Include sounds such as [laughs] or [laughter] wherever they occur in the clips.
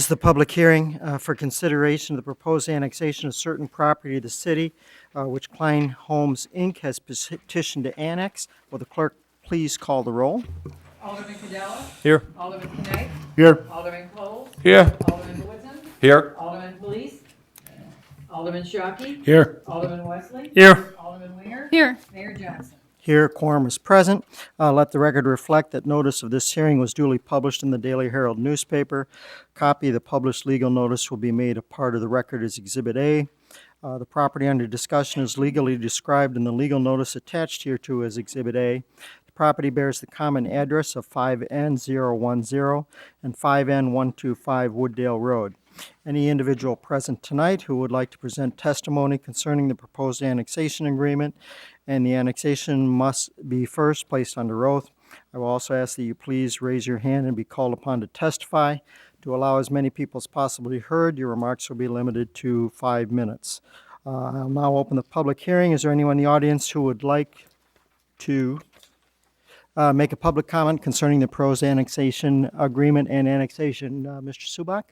This is the public hearing uh, for consideration of the proposed annexation of certain property of the city, uh, which Klein Homes, Inc. has petitioned to annex. Will the clerk please call the roll? Alderman Cadella. Here. Alderman Knight. Here. Alderman Cole. Here. Alderman Woodson. Here. Alderman Police. Alderman Shockey. Here. Alderman Wesley. Here. Alderman Winger. Here. Mayor Johnson. Here, quorum is present. Uh, Let the record reflect that notice of this hearing was duly published in the Daily Herald newspaper. Copy of the published legal notice will be made a part of the record as Exhibit A. Uh, The property under discussion is legally described in the legal notice attached hereto as Exhibit A. The property bears the common address of 5N010 and 5N125 Wooddale Road. Any individual present tonight who would like to present testimony concerning the proposed annexation agreement and the annexation must be first placed under oath. I will also ask that you please raise your hand and be called upon to testify. To allow as many people as possibly heard, your remarks will be limited to five minutes. Uh, I'll now open the public hearing. Is there anyone in the audience who would like to uh, make a public comment concerning the pros annexation agreement and annexation? Uh, Mr. Subak?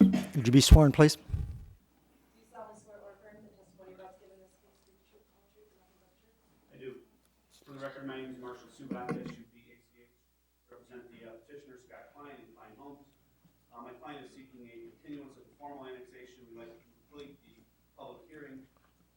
Would you be sworn, please? I do. For the record, my name is Marshall Subak, S-U-B-A-C-H, represent the uh, petitioner Scott Klein and Klein Homes. Uh, My client is seeking a continuance of the formal annexation, we'd like to complete the public hearing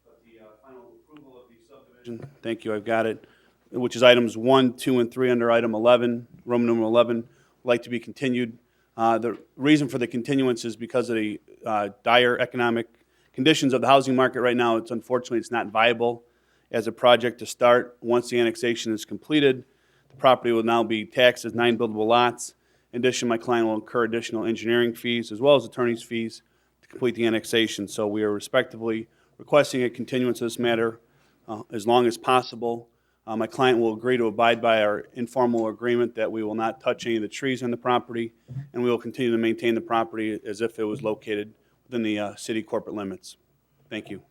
of the uh, final approval of the subdivision. Thank you, I've got it, which is items one, two, and three under item 11, Roman numeral 11, would like to be continued. Uh, The reason for the continuance is because of the uh, dire economic conditions of the housing market right now. It's unfortunately, it's not viable as a project to start. Once the annexation is completed, the property will now be taxed as nine buildable lots. In addition, my client will incur additional engineering fees as well as attorney's fees to complete the annexation. So we are respectively requesting a continuance of this matter uh, as long as possible. Uh, My client will agree to abide by our informal agreement that we will not touch any of the trees on the property, and we will continue to maintain the property as if it was located within the uh, city corporate limits. Thank you.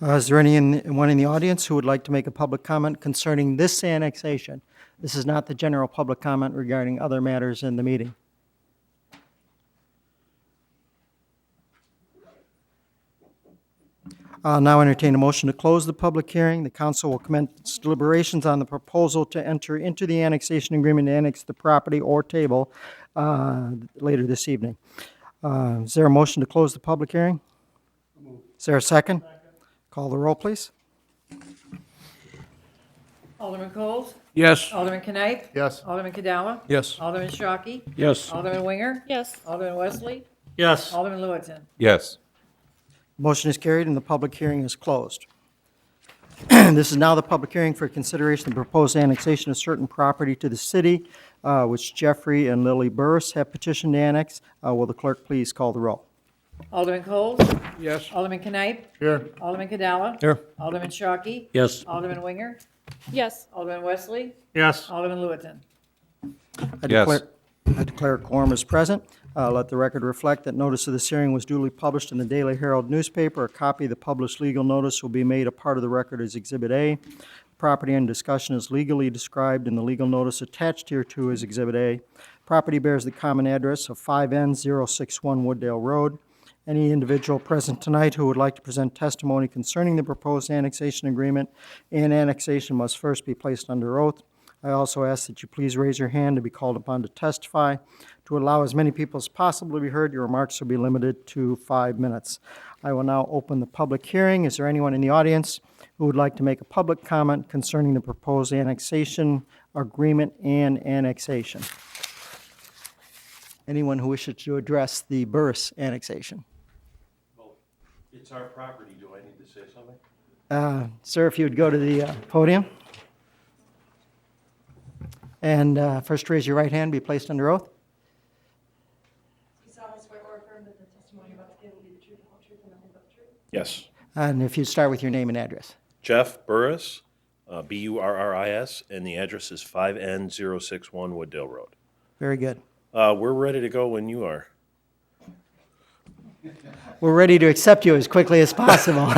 Uh, Is there anyone in the audience who would like to make a public comment concerning this annexation? This is not the general public comment regarding other matters in the meeting. I'll now entertain a motion to close the public hearing. The council will commence deliberations on the proposal to enter into the annexation agreement to annex the property or table uh, later this evening. Uh, Is there a motion to close the public hearing? Is there a second? Call the roll, please. Alderman Coles. Yes. Alderman Knight. Yes. Alderman Cadella. Yes. Alderman Shockey. Yes. Alderman Winger. Yes. Alderman Wesley. Yes. Alderman Lewis. Yes. Motion is carried and the public hearing is closed. [clears throat] This is now the public hearing for consideration of proposed annexation of certain property to the city, uh, which Jeffrey and Lily Burris have petitioned to annex. Uh, Will the clerk please call the roll? Alderman Coles. Yes. Alderman Knight. Here. Alderman Cadella. Here. Alderman Shockey. Yes. Alderman Winger. Yes. Alderman Wesley. Yes. Alderman Lewis. I Yes. declare- I declare quorum is present. Uh, Let the record reflect that notice of this hearing was duly published in the Daily Herald newspaper. A copy of the published legal notice will be made a part of the record as Exhibit A. Property in discussion is legally described in the legal notice attached hereto as Exhibit A. Property bears the common address of 5N061 Wooddale Road. Any individual present tonight who would like to present testimony concerning the proposed annexation agreement and annexation must first be placed under oath. I also ask that you please raise your hand to be called upon to testify. To allow as many people as possible to be heard, your remarks will be limited to five minutes. I will now open the public hearing. Is there anyone in the audience who would like to make a public comment concerning the proposed annexation agreement and annexation? Anyone who wishes to address the Burris annexation? It's our property, do I need to say something? Uh, Sir, if you would go to the uh, podium. And uh, first raise your right hand, be placed under oath. You solemnly swear or affirm that the testimony about to give will be the truth, the whole truth, and nothing but the truth? Yes. And if you'd start with your name and address. Jeff Burris, uh, B-U-R-R-I-S, and the address is 5N061 Wooddale Road. Very good. Uh, We're ready to go when you are. [laughs] We're ready to accept you as quickly as possible.